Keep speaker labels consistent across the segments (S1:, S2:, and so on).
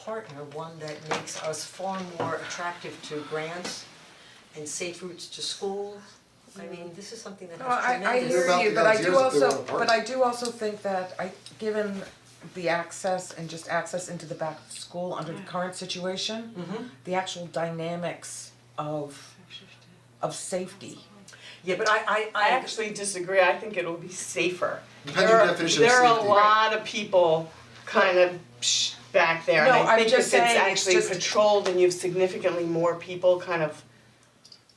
S1: partner, one that makes us far more attractive to grants and safe routes to school. I mean, this is something that
S2: No, I I
S1: has
S2: hear
S1: tremendous,
S2: you,
S3: About
S2: but I do
S3: the ideas that they
S2: also,
S3: want to
S2: but
S3: park.
S2: I do also think that I, given the access and just access into the back of school under the current situation,
S1: Mm-hmm.
S2: the actual dynamics of of safety.
S1: yeah, but I I
S4: I
S1: I
S4: actually disagree, I think it'll be safer.
S3: Depends
S4: There
S3: on
S4: are-
S3: definition of
S4: There are a
S3: safety.
S4: lot of people kind of psh, back there, and
S2: No,
S4: I
S2: I'm
S4: think if
S2: just
S4: it's
S2: saying it's
S4: actually
S2: just-
S4: patrolled and you have significantly more people kind of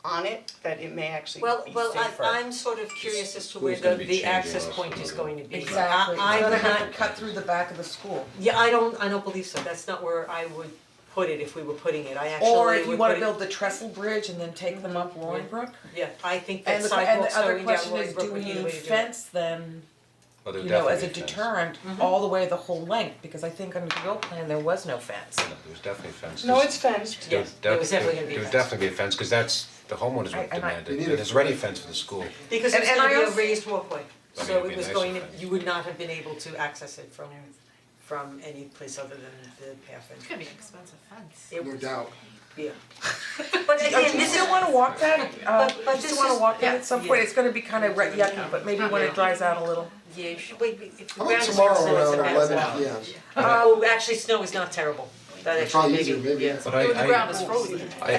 S4: on it, that it may actually be
S1: Well,
S4: safer.
S1: well, I I'm sort of curious as to where
S5: Who's gonna
S1: the
S5: be
S1: the
S5: changing
S1: access
S5: us
S1: point is
S5: or-
S1: going to be. I-
S2: Exactly,
S1: I
S2: it's
S1: would
S2: gonna have
S1: not,
S2: to cut through the back of the school.
S1: yeah, I don't, I don't believe so, that's not where I would put it if we were putting it, I actually would put it.
S2: Or if you wanna buld the trestle bridge and then take them up Roaring Brook.
S1: Mm-hmm. Yeah, I think that
S2: And the, and
S1: sidewalks
S2: the other
S1: going down
S2: question
S1: Roaring
S2: is, do
S1: Brook
S2: we
S1: would be the way to do it.
S2: need fence them,
S5: Well, there
S2: you know, as
S5: definitely
S2: a
S5: is fence.
S2: deterrent,
S1: Mm-hmm.
S2: all the way the whole length? Because I think under the old plan, there was no fence.
S5: No, There's definitely fences.
S4: No, it's fenced.
S1: Yeah, there was definitely gonna be
S5: There would
S1: fence.
S5: definitely be a fence, cause that's, the homeowners
S2: I-
S5: would
S2: I might-
S5: demand
S3: We
S5: it,
S3: need
S5: and
S3: a-
S5: there's already a fence for the school.
S1: Because
S2: And-
S1: it's
S2: and
S1: gonna
S2: I
S1: be a
S2: also-
S1: raised walkway,
S5: I mean,
S1: so
S5: it'd be
S1: it was
S5: nice
S1: going to,
S5: if it-
S1: you would not have been able to access it from from any place other than the path
S6: It's
S1: and
S6: gonna be an expensive fence.
S1: it
S3: No
S1: was,
S3: doubt.
S1: yeah. But
S2: Oh, do you still wanna walk that, uh,
S1: But- but
S2: do you still
S1: this
S2: wanna
S1: is-
S2: walk that at some point,
S1: yeah.
S2: it's gonna be kind of yucky, but maybe when it dries out a little.
S1: Yeah, you should wait, if the
S3: How
S1: ground
S3: about
S1: is
S3: Oh, tomorrow
S1: frozen, it's
S3: around
S1: about
S3: eleven
S1: well.
S3: p.m.?
S1: Oh, actually, snow is not terrible, that
S3: It's probably
S1: actually
S3: easier,
S1: maybe,
S3: maybe.
S1: yeah.
S5: But I,
S6: The ground is
S5: I,
S6: frozen.
S5: I, I,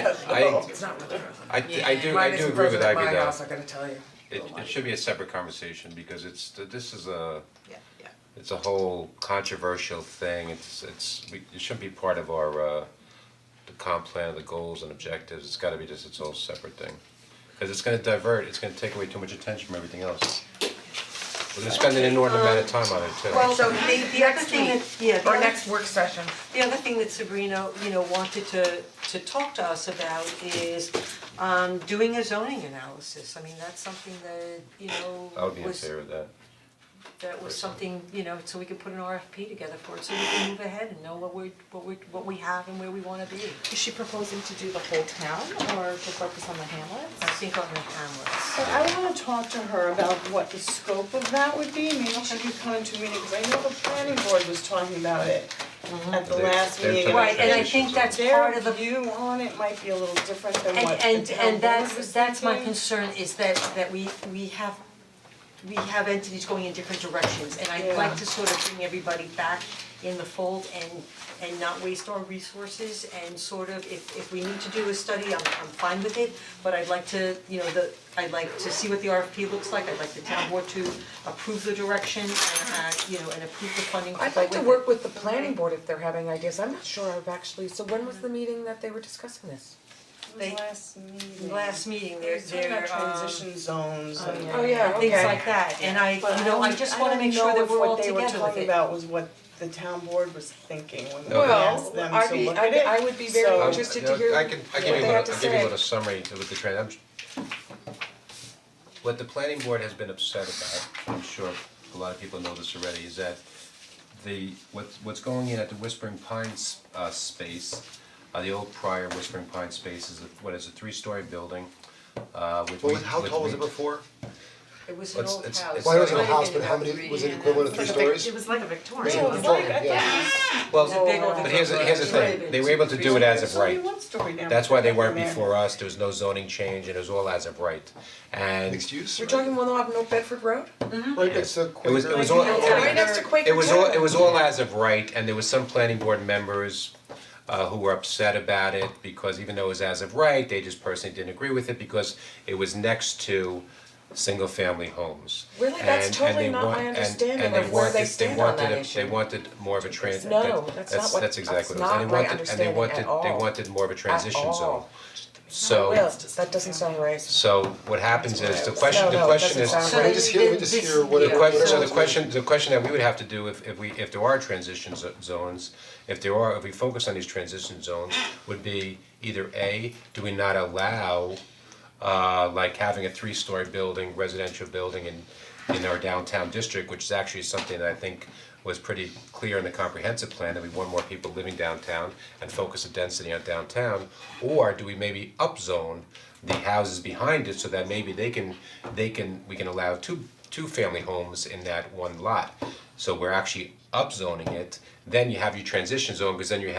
S2: It's not really frozen.
S5: I, I do, I
S2: Mine
S5: do
S2: isn't
S5: agree
S2: frozen
S5: with
S2: at my
S5: Ivy though,
S2: house, I gotta tell you.
S5: it, it should be a separate conversation, because it's, this is a,
S6: Yeah, yeah.
S5: it's a whole controversial thing, it's, it's, we, it shouldn't be part of our, uh, the comp plan, the goals and objectives, it's gotta be just its own separate thing. Cause it's gonna divert, it's gonna take away too much attention from everything else. We're gonna spend an inordinate amount of time on it too.
S1: Well,
S2: So
S1: the the other
S2: next
S1: thing
S2: week,
S1: that, yeah, the
S2: or
S1: other-
S2: next work session,
S1: The other thing that Sabrina, you know, wanted to to talk to us about is um doing a zoning analysis. I mean, that's something that, you know,
S5: I would be in
S1: was
S5: favor of that.
S1: that was something, you know, so we could put an RFP together for it, so we can move ahead and know what we what we what we have and where we wanna be.
S7: Is she proposing to do the whole town or to focus on the hamlets?
S1: I think on the hamlets.
S7: So I wanna talk to her about what the scope of that would be, maybe she could come into a meeting, cause I know the planning board was talking about it
S4: Mm-hmm.
S7: at the
S5: They-
S7: last
S5: they're
S7: meeting.
S5: trying to
S1: Right, and I
S5: transition
S1: think
S5: zone.
S1: that's part
S7: Their
S1: of the
S7: view on it might be a little different than what the town board
S1: And
S7: was
S1: and and that's that's my
S7: thinking.
S1: concern is that that we we have we have entities going in different directions and I'd like
S7: Yeah.
S1: to sort of bring everybody back in the fold and and not waste our resources and sort of if if we need to do a study, I'm I'm fine with it, but I'd like to, you know, the I'd like to see what the RFP looks like, I'd like the town board to approve the direction and uh you know, and approve the funding to go
S2: I'd like to
S1: with it.
S2: work with the planning board if they're having ideas, I'm not sure I've actually, so when was the meeting that they were discussing this?
S7: It
S1: they-
S7: was last meeting.
S1: Last meeting,
S7: They
S1: they're
S7: were talking
S1: they're
S7: about
S1: um,
S7: transition zones and.
S2: Oh, yeah, okay.
S1: things like that, and I,
S7: But
S1: you know, I just wanna make sure that we're all together with it.
S7: don't know if what they were talking about was what the town board was thinking when we
S5: No.
S7: asked them
S2: I'd
S7: to
S2: be-
S7: look
S2: I'd
S7: at
S2: be-
S7: it.
S2: I would be very
S7: So-
S5: Um,
S2: interested to
S5: you know,
S2: hear
S5: I can, I
S2: what
S5: give you a
S2: they
S5: little,
S2: have to
S5: I'll give you
S2: say.
S5: a little summary with the trend, I'm. What the planning board has been upset about, I'm sure a lot of people know this already, is that the, what's, what's going in at the Whispering Pines, uh, space, uh, the old prior Whispering Pine space is, a- what is a three-story building, uh, with.
S3: What
S5: re-
S3: was- how
S5: with
S3: tall was
S5: re-
S3: it before?
S1: It was an
S5: It's-
S1: old
S5: it's-
S1: house.
S5: it's-
S3: Well, it wasn't a
S1: Might have
S3: house,
S1: been
S3: but how
S1: about
S3: many,
S1: three
S3: was it
S1: and a
S3: equivalent to three
S6: It's like a vic-
S3: stories?
S6: It was like a
S3: Was
S6: Victorian.
S3: it
S7: was
S3: Victorian?
S7: like a
S3: Yeah.
S5: Well,
S1: It's a big old-
S5: but here's, the- here's the thing, they were able to do it as of
S7: There's only
S5: right.
S7: one story down
S5: That's why they weren't
S7: there.
S5: before us, there was no zoning change, and it was all as of right, and.
S3: Mixed use?
S2: We're talking one off North Bedford Road?
S3: Right next to
S5: It was, it
S3: Quaker.
S5: was all,
S2: Right next to Quaker
S5: it was all,
S2: Tavern.
S5: it was all as of right, and there was some planning board members uh who were upset about it because even though it was as of right, they just personally didn't agree with it because it was next to single family homes.
S2: Really? That's
S5: And- and
S2: totally
S5: they
S2: not my
S5: want- and-
S2: understanding
S5: and they
S2: of where they
S5: wanted-
S2: stand on that
S5: wanted a-
S2: issue.
S5: They wanted more of a trans,
S2: No,
S5: that-
S2: that's
S5: that's
S2: not what-
S5: that's exactly
S2: that's
S5: what it was, and
S2: not
S5: they
S2: my
S5: wanted, and they
S2: understanding at
S5: wanted, they
S2: all.
S5: wanted more of a transition
S2: all.
S5: zone. So
S2: Well, that doesn't sound right.
S5: so what happens is, the question,
S2: No,
S5: the
S2: no, it
S5: question
S2: doesn't
S5: is,
S2: sound
S3: So
S2: right.
S3: we just hear, let me just hear what it,
S5: the
S3: what it
S5: question, so the
S3: was.
S5: question, the question that we would have to do if if we, if there are transition zo- zones, if there are, if we focus on these transition zones, would be either A, do we not allow uh like having a three-story building, residential building in in our downtown district, which is actually something that I think was pretty clear in the comprehensive plan that we want more people living downtown and focus the density on downtown, or do we maybe upzone the houses behind it so that maybe they can, they can, we can allow two, two family homes in that one lot. So we're actually upzoning it, then you have your transition zone, because then you have